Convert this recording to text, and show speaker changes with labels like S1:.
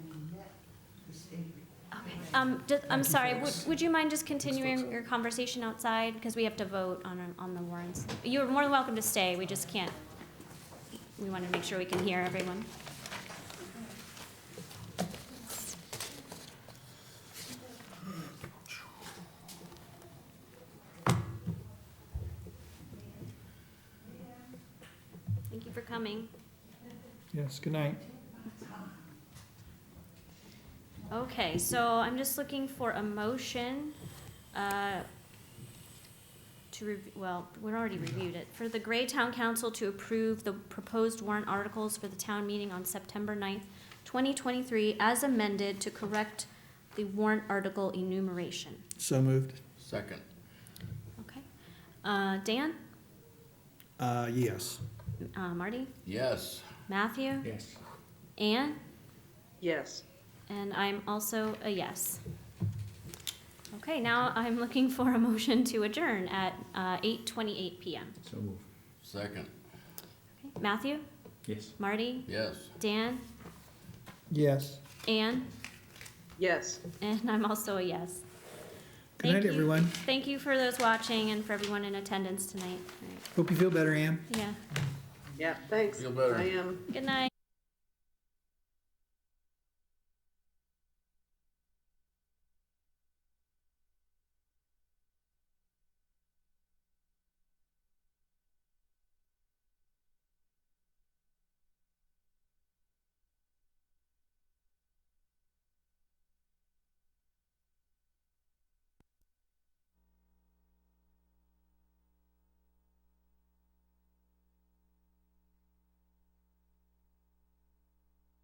S1: Um, ju- I'm
S2: you,
S1: sorry, would,
S2: folks.
S1: would you mind just continuing
S2: folks.
S1: your conversation outside? Because we have to vote on, on the warrants. You're more than welcome to stay, we just can't, we want to make sure we can hear everyone. Thank you for coming.
S2: Yes, good night.
S1: Okay, so I'm just looking for a motion uh, to, rev- well, we already reviewed it, for the Gray Town Council to approve the proposed warrant articles for the town meeting on September 9th, 2023, as amended to correct the warrant article enumeration.
S2: So moved.
S3: Second.
S1: Okay? Uh, Dan?
S2: Uh, yes.
S1: Uh, Marty?
S3: Yes.
S1: Matthew?
S2: Yes.
S1: Anne?
S4: Yes.
S1: And I'm also a yes. Okay, now I'm looking for a motion to adjourn at uh, 8:28 PM.
S2: So moved.
S3: Second.
S1: Okay, Matthew,
S2: Yes.
S1: Marty,
S3: Yes.
S1: Dan,
S2: Yes.
S1: Anne,
S4: Yes.
S1: and I'm also a yes.
S2: Good night,
S1: Thank you-
S2: everyone.
S1: Thank you for those watching and for everyone in attendance tonight. All
S2: Hope you feel better, Ann.
S1: right, Yeah,
S4: Yeah, thanks.
S3: Feel better.
S4: I am.
S1: good night.